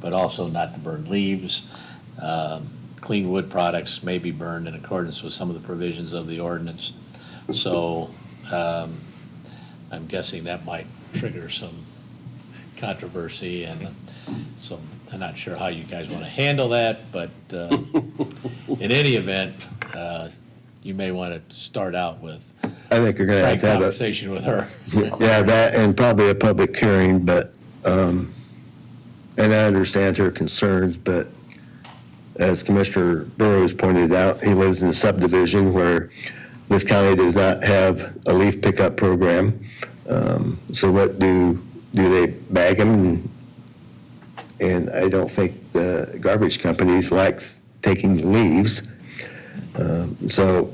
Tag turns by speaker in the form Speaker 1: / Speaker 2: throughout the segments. Speaker 1: but also not to burn leaves. Um, Clean wood products may be burned in accordance with some of the provisions of the ordinance. So um, I'm guessing that might trigger some controversy and so I'm not sure how you guys want to handle that, but uh, in any event, uh, you may want to start out with
Speaker 2: I think you're going to
Speaker 1: frank
Speaker 2: have to have a,
Speaker 1: conversation with her.
Speaker 2: yeah, that and probably a public hearing, but, um, and I understand her concerns, but as Commissioner Burrows pointed out, he lives in a subdivision where this county does not have a leaf pickup program. Um, so what do, do they bag them? And I don't think the garbage companies likes taking leaves. Um, so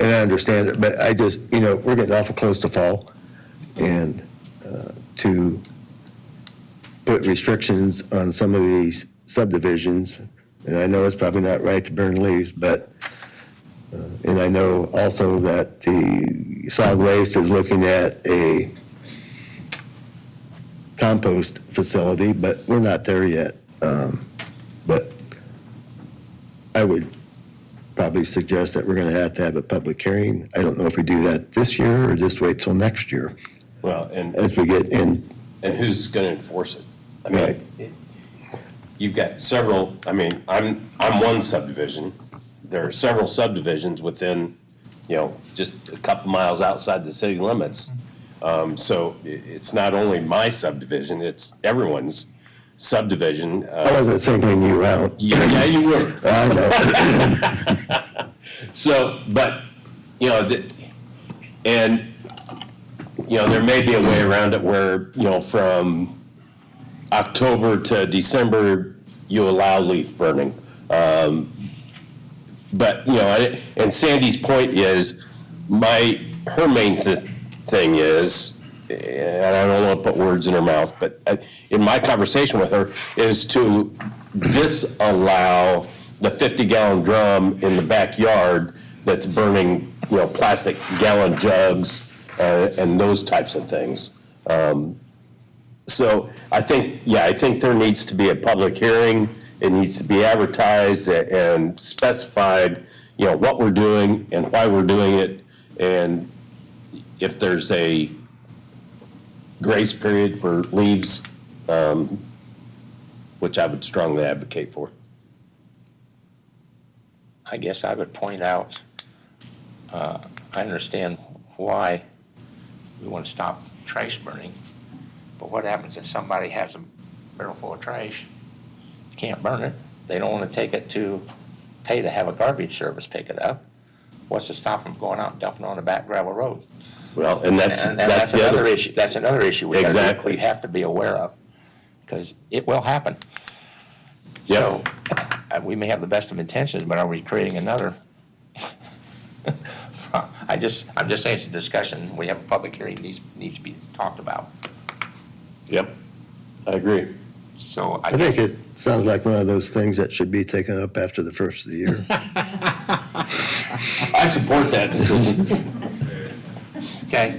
Speaker 2: and I understand it, but I just, you know, we're getting awful close to fall, and uh, to put restrictions on some of these subdivisions, and I know it's probably not right to burn leaves, but, uh, and I know also that the solid waste is looking at a compost facility, but we're not there yet. Um, But I would probably suggest that we're going to have to have a public hearing. I don't know if we do that this year or just wait till next year
Speaker 3: Well, and,
Speaker 2: as we get in.
Speaker 3: and who's going to enforce it? I
Speaker 2: Right.
Speaker 3: mean, it- you've got several, I mean, I'm, I'm one subdivision. There are several subdivisions within, you know, just a couple miles outside the city limits. Um, So i- it's not only my subdivision, it's everyone's subdivision. Uh,
Speaker 2: I wasn't singling you out.
Speaker 3: Yeah, yeah, you were.
Speaker 2: I know.
Speaker 3: So, but, you know, the, and, you know, there may be a way around it where, you know, from October to December, you allow leaf burning. Um, But, you know, I- and Sandy's point is, my, her main th- thing is, and I don't want to put words in her mouth, but uh, in my conversation with her, is to disallow the 50-gallon drum in the backyard that's burning, you know, plastic gallon jugs uh, and those types of things. Um, So I think, yeah, I think there needs to be a public hearing. It needs to be advertised and specified, you know, what we're doing and why we're doing it. And if there's a grace period for leaves, um, which I would strongly advocate for.
Speaker 4: I guess I would point out, uh, I understand why we want to stop trash burning, but what happens if somebody has a barrel full of trash, can't burn it, they don't want to take it to, pay to have a garbage service pick it up? What's to stop them going out and dumping it on the back gravel road?
Speaker 3: Well, and that's,
Speaker 4: And and
Speaker 3: that's
Speaker 4: that's
Speaker 3: the
Speaker 4: another
Speaker 3: other,
Speaker 4: issue, that's another issue we gotta-
Speaker 3: Exactly.
Speaker 4: we have to be aware of, because it will happen.
Speaker 3: Yep.
Speaker 4: So, uh, we may have the best of intentions, but are we creating another? I just, I'm just saying it's a discussion, we have a public hearing, needs, needs to be talked about.
Speaker 3: yep, I agree.
Speaker 4: So I
Speaker 2: I think
Speaker 4: guess,
Speaker 2: it sounds like one of those things that should be taken up after the first of the year.
Speaker 3: I support that decision.
Speaker 4: okay,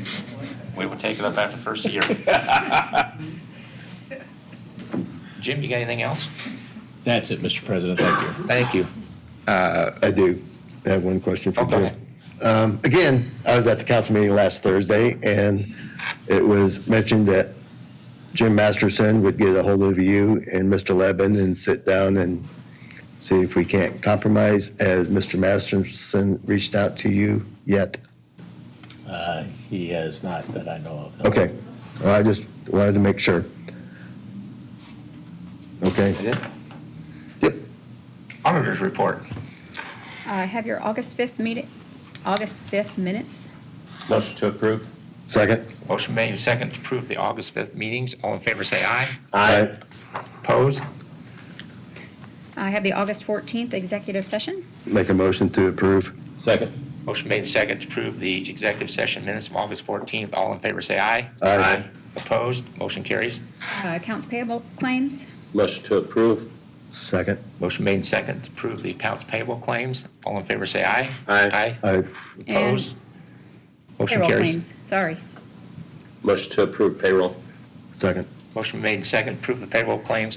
Speaker 4: we will take it up after the first year. Jim, you got anything else?
Speaker 1: That's it, Mr. President, thank you.
Speaker 4: Thank you.
Speaker 2: I do have one question for
Speaker 4: Oh, go
Speaker 2: Jim.
Speaker 4: ahead.
Speaker 2: Um, Again, I was at the council meeting last Thursday, and it was mentioned that Jim Masterson would get a hold of you and Mr. Levin and sit down and see if we can't compromise. Has Mr. Masterson reached out to you yet?
Speaker 1: Uh, He has not that I know of.
Speaker 2: Okay, Well, I just wanted to make sure. Okay, yep,
Speaker 4: Auditor's report.
Speaker 5: I have your August 5th meeting, August 5th minutes.
Speaker 3: Motion to approve?
Speaker 2: second.
Speaker 4: Motion made and seconded to approve the August 5th meetings. All in favor, say aye.
Speaker 2: Aye.
Speaker 4: Opposed?
Speaker 5: I have the August 14th executive session.
Speaker 2: Make a motion to approve.
Speaker 3: Second.
Speaker 4: Motion made and seconded to approve the executive session minutes of August 14th. All in favor, say aye.
Speaker 2: Aye.
Speaker 4: Opposed? Motion carries.
Speaker 5: Uh, Accounts payable claims.
Speaker 3: Motion to approve?
Speaker 2: Second.
Speaker 4: Motion made and seconded to approve the accounts payable claims. All in favor, say aye.
Speaker 3: Aye.
Speaker 4: Aye.
Speaker 2: Aye.
Speaker 4: Opposed? Motion
Speaker 5: Payroll
Speaker 4: carries.
Speaker 5: claims, sorry.
Speaker 3: Motion to approve payroll?
Speaker 2: Second.
Speaker 4: Motion made and seconded, approve the payroll claims